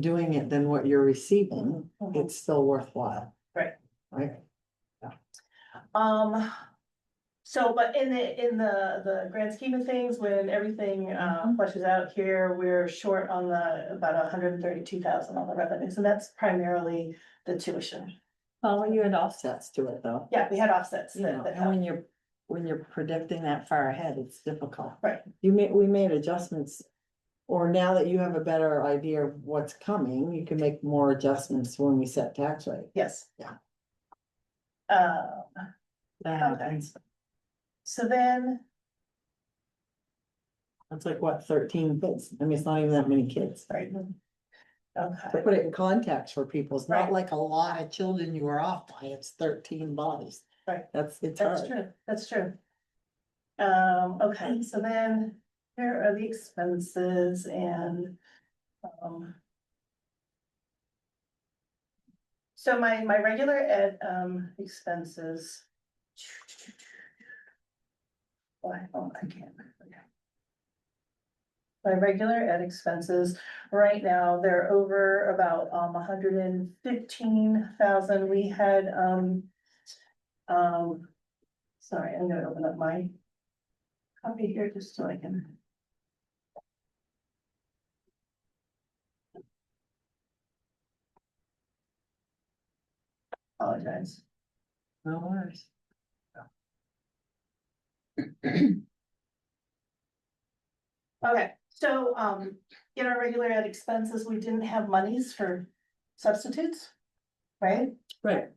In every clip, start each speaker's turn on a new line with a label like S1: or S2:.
S1: doing it than what you're receiving, it's still worthwhile.
S2: Right.
S1: Right?
S2: Um, so, but in the, in the, the grand scheme of things, when everything,
S1: Mm-hmm.
S2: uh, flushes out here, we're short on the, about hundred and thirty-two thousand on the revenues, and that's primarily the tuition.
S1: Well, you had offsets to it though.
S2: Yeah, we had offsets
S1: You know,
S2: that, that
S1: and when you're, when you're predicting that far ahead, it's difficult.
S2: Right.
S1: You made, we made adjustments. Or now that you have a better idea of what's coming, you can make more adjustments when we set tax rate.
S2: yes.
S1: Yeah.
S2: Uh,
S1: That happens.
S2: so then,
S1: That's like what, thirteen kids? I mean, it's not even that many kids.
S2: right.
S1: To
S2: Okay,
S1: put it in context for people, it's not
S2: Right.
S1: like a lot of children you are off by, it's thirteen bodies.
S2: Right.
S1: That's, it's
S2: that's
S1: hard.
S2: true, that's true. Um, okay, so then, here are the expenses and, um. So my, my regular ed, um, expenses. Why, oh, I can't. okay. My regular ed expenses, right now, they're over about, um, hundred and fifteen thousand, we had, um. Um, sorry, I'm gonna open up my. Copy here just so I can. Apologize.
S1: No worries.
S2: Okay, so, um, in our regular ed expenses, we didn't have monies for substitutes, right?
S1: Right.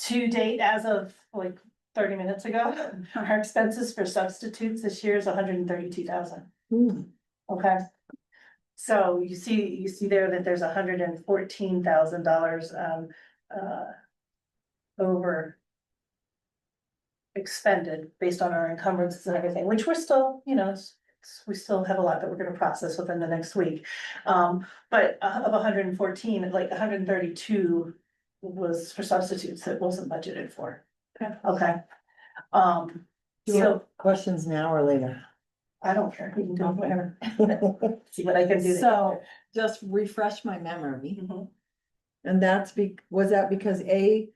S2: To date, as of like thirty minutes ago, our expenses for substitutes this year is hundred and thirty-two thousand.
S1: Hmm.
S2: Okay. So you see, you see there that there's hundred and fourteen thousand dollars, um, uh. Over. Expended based on our encumbrances and everything, which we're still, you know, it's- it's- we still have a lot that we're gonna process within the next week. Um, but uh, of hundred and fourteen, like hundred and thirty-two was for substitutes that wasn't budgeted for.
S1: Okay.
S2: Okay. Um,
S1: Do you
S2: so
S1: have questions now or later?
S2: I don't care, we can do it whenever, see what I can do.
S1: So, just refresh my memory,
S2: Mhm.
S1: and that's be, was that because A?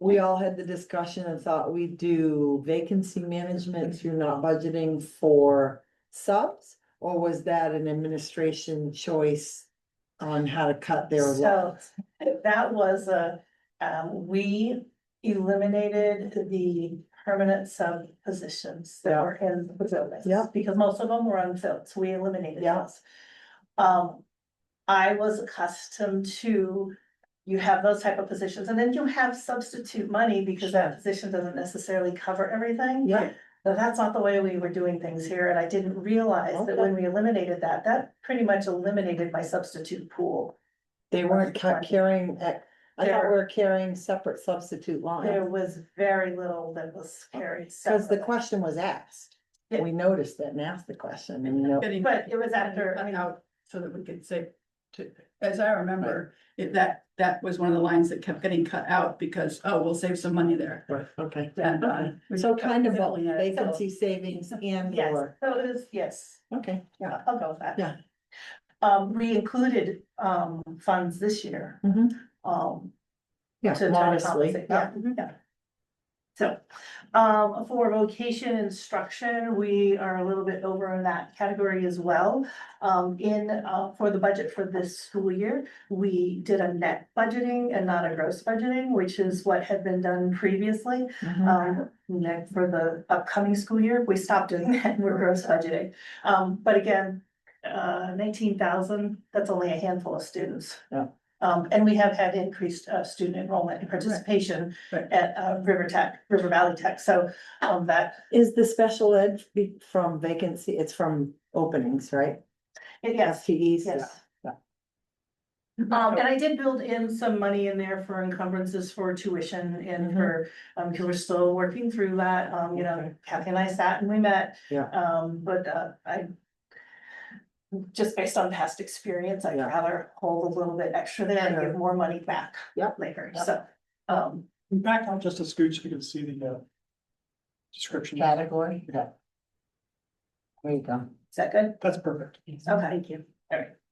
S1: We all had the discussion and thought we'd do vacancy management through not budgeting for subs? Or was that an administration choice on how to cut their
S2: So-
S1: losses?
S2: That was a, um, we eliminated the permanent sub positions that
S1: Yeah.
S2: were in the buildings.
S1: Yeah.
S2: Because most of them were unfilled, so we eliminated
S1: Yeah.
S2: those. Um, I was accustomed to, you have those type of positions, and then you have substitute money because that position doesn't necessarily cover everything.
S1: Yeah,
S2: So that's not the way we were doing things here, and I didn't realize that when we eliminated that, that pretty much eliminated my substitute pool.
S1: they weren't ca- carrying, eh, I thought
S2: They're-
S1: we were carrying separate substitute
S2: There
S1: lines,
S2: was very little that was carried.
S1: cause the
S2: separately.
S1: question was asked.
S2: Yeah.
S1: We noticed it and asked the question, and you know,
S3: getting.
S2: But it was after, I
S3: cut
S2: mean,
S3: Out so that we could say, to, as I remember, it, that, that was one of the lines that kept getting cut out because, oh, we'll save some money there.
S1: Right, okay.
S3: And, uh, we
S1: So
S3: cut
S1: kind of both
S3: definitely at it.
S1: vacancy savings and
S2: yes,
S1: or,
S2: so it is, yes,
S1: okay, yeah.
S2: I'll go with that.
S1: Yeah.
S2: Um, we included, um, funds this year,
S1: Mhm.
S2: um,
S1: Yeah, Mm-hmm.
S2: to try to
S1: modestly.
S2: compensate, yeah, yeah. So, um, for vocation instruction, we are a little bit over in that category as well. Um, in, uh, for the budget for this school year, we did a net budgeting and not a gross budgeting, which is what had been done previously.
S1: Mhm.
S2: um, next for the upcoming school year, we stopped doing that, and we're gross budgeting. Um, but again, uh, nineteen thousand, that's only a handful of students.
S1: Yeah.
S2: Um, and we have had increased, uh, student enrollment and participation
S3: Right.
S2: at, uh, River Tech, River Valley Tech, so, um, that,
S1: Is the special ed be- from vacancy, it's from openings, right?
S2: yes,
S1: FTEs?
S2: yes.
S1: yeah.
S2: Um, and I did build in some money in there for encumbrances for tuition and for, um, because we're still working through that, um, you know,
S1: Mm-hmm. Okay.
S2: Kathy and I sat and we met.
S1: Yeah.
S2: Um, but, uh, I. Just based on past experience, I'd
S1: Yeah.
S2: rather hold a little bit extra there and
S1: Sure.
S2: give more money back.
S1: Yep.
S2: Later,
S1: Yep.
S2: so, um,
S4: Back out just a scooch, so you can see the uh. Description,
S1: Category, yeah. There you go.
S2: is that good?
S4: that's perfect.
S2: Okay. Thank you. All right.